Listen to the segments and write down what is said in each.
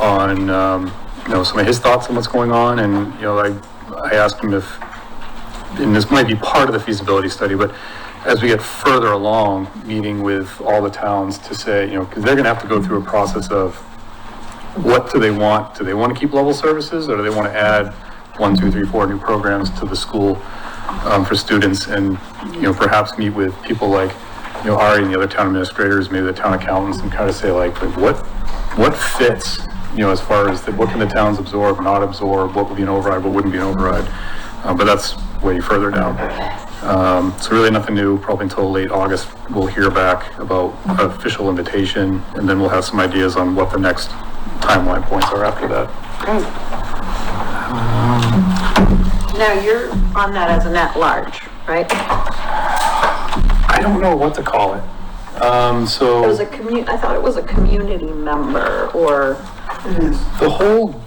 on, um, you know, some of his thoughts on what's going on, and, you know, I, I asked him if, and this might be part of the feasibility study, but as we get further along, meeting with all the towns to say, you know, because they're gonna have to go through a process of what do they want? Do they want to keep level services, or do they want to add one, two, three, four new programs to the school um, for students? And, you know, perhaps meet with people like, you know, Ari and the other town administrators, maybe the town accountants, and kind of say like, like, what, what fits? You know, as far as the- what can the towns absorb, not absorb, what would be an override, what wouldn't be an override? Uh, But that's way further down. Um, So really nothing new, probably until late August, we'll hear back about official invitation, and then we'll have some ideas on what the next timeline points are after that. Great. Now, you're on that as an at-large, right? I don't know what to call it. Um, It was so a commu, I thought it was a community member or, the whole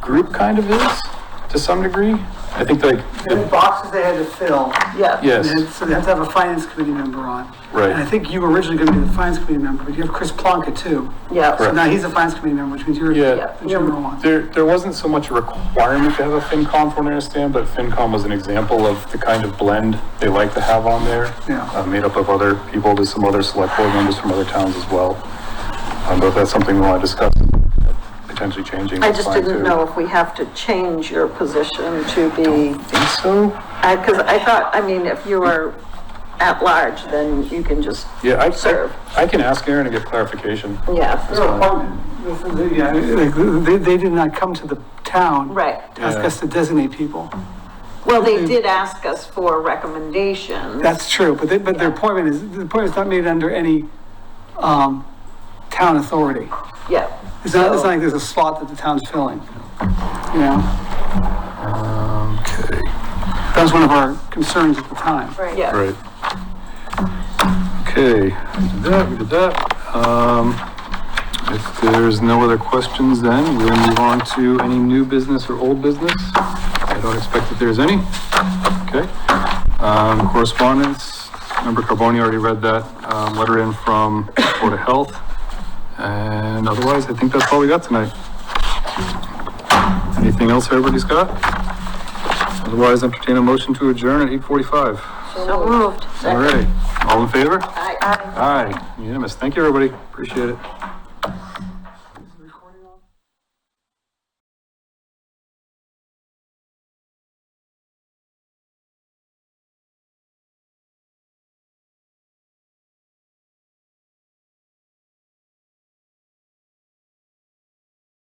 group kind of is, to some degree. I think like, There were boxes they had to fill, yeah. yes, and then- so they have to have a finance committee member on. Right. And I think you were originally gonna be the finance committee member, but you have Chris Plonka too. Yeah. So now he's a finance committee member, which means you're Yeah. the general one. there, there wasn't so much a requirement to have a FinCom from what I understand, but FinCom was an example of the kind of blend they like to have on there. Yeah. Uh, made up of other people, there's some other select board members from other towns as well. Um, but if that's something we want to discuss, potentially changing. I that's just fine, didn't too. know if we have to change your position to be, Think so? because I thought, I mean, if you are at-large, then you can just Yeah, I, serve. I, I can ask Aaron to get clarification. Yeah, They're appointed. This is- yeah, like, They, they did not come to the town. Right. To ask us to designate people. well, they did ask us for recommendations. That's true, but they, but their appointment is, the appointment's not made under any, um, town authority. Yeah. It's not, So- it's not like there's a slot that the town's filling, you know? Okay. That was one of our concerns at the time. Right. Yeah. Right. Okay, we did that, we did that. Um, if there's no other questions, then we'll move on to any new business or old business. I don't expect that there's any. Okay. Um, correspondence, member Carboni already read that, um, letter in from Board of Health. And otherwise, I think that's all we got tonight. Anything else everybody's got? Otherwise, entertain a motion to adjourn at eight forty-five. So moved. All right, all in favor? Aye. Aye, unanimous. Thank you, everybody. Appreciate it.